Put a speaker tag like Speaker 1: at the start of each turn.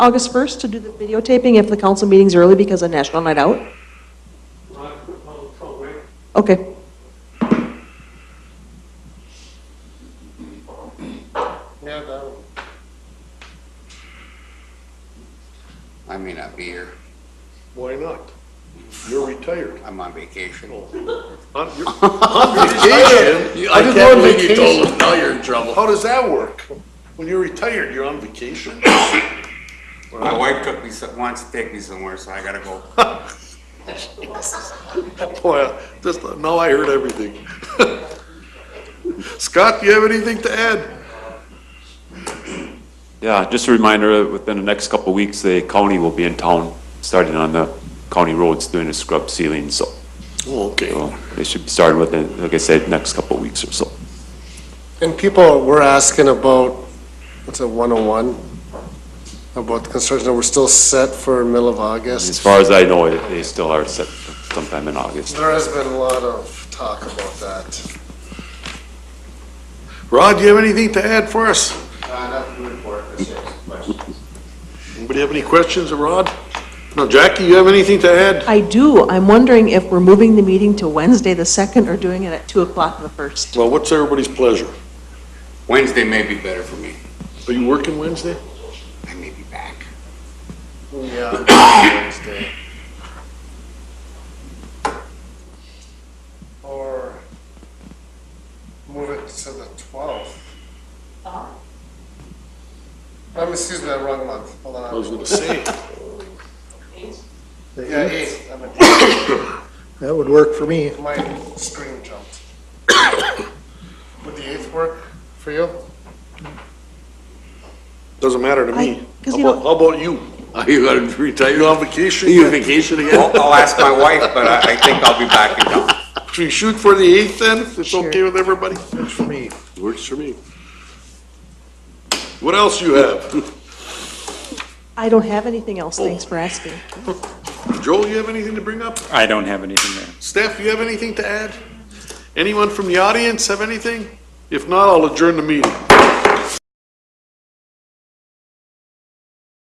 Speaker 1: August 1st to do the videotaping if the council meeting's early because of National Night Out? Okay.
Speaker 2: Yeah, that,
Speaker 3: I may not be here.
Speaker 2: why not? You're retired.
Speaker 3: I'm on vacation.
Speaker 2: On your- on vacation?
Speaker 4: I just
Speaker 2: can't
Speaker 4: not
Speaker 2: believe
Speaker 4: believe you
Speaker 2: vacation.
Speaker 4: told us, now you're in trouble.
Speaker 2: How does that work? When you're retired, you're on vacation?
Speaker 3: My wife took me, some- wants to take me somewhere, so I gotta go.
Speaker 2: Boy, just, now I heard everything. Scott, do you have anything to add?
Speaker 5: Yeah, just a reminder, that within the next couple of weeks, the county will be in town, starting on the county roads, doing a scrub sealing, so
Speaker 2: Oh, Okay.
Speaker 5: so they should be starting within, like I said, next couple of weeks or so.
Speaker 6: And people were asking about, what's it, 101? About the construction, and we're still set for middle of
Speaker 5: As
Speaker 6: August.
Speaker 5: far as I know, it- they still are set sometime in August.
Speaker 6: There has been a lot of talk about that.
Speaker 2: Rod, do you have anything to add for us? Anybody have any questions of Rod? No, Jackie, you have anything to add?
Speaker 1: I do. I'm wondering if we're moving the meeting to Wednesday the 2nd or doing it at 2 o'clock the 1st.
Speaker 2: Well, what's everybody's pleasure?
Speaker 3: Wednesday may be better for me.
Speaker 2: Are you working Wednesday?
Speaker 3: I may be back.
Speaker 6: Yeah. Wednesday. Or move it to the 12th. I'm, excuse me, wrong month, hold on.
Speaker 2: I was gonna say.
Speaker 6: Yeah, 8th, I'm
Speaker 7: That would work for me.
Speaker 6: My screen jumped. Would the eighth work for you?
Speaker 2: Doesn't matter to me.
Speaker 1: I- 'cause
Speaker 2: How
Speaker 1: you know-
Speaker 2: about, how about you? Are you on retire? You on vacation? You on vacation
Speaker 3: Well, I'll ask my wife, but I, I think I'll be back in town.
Speaker 2: Should we shoot for the eighth then, if it's okay with everybody?
Speaker 7: Works for me.
Speaker 2: Works for me. What else you have?
Speaker 1: I don't have anything else. Thanks for asking.
Speaker 2: Joel, you have anything to bring up?
Speaker 8: I don't have anything there.
Speaker 2: Steph, you have anything to add? Anyone from the audience have anything? If not, I'll adjourn the meeting.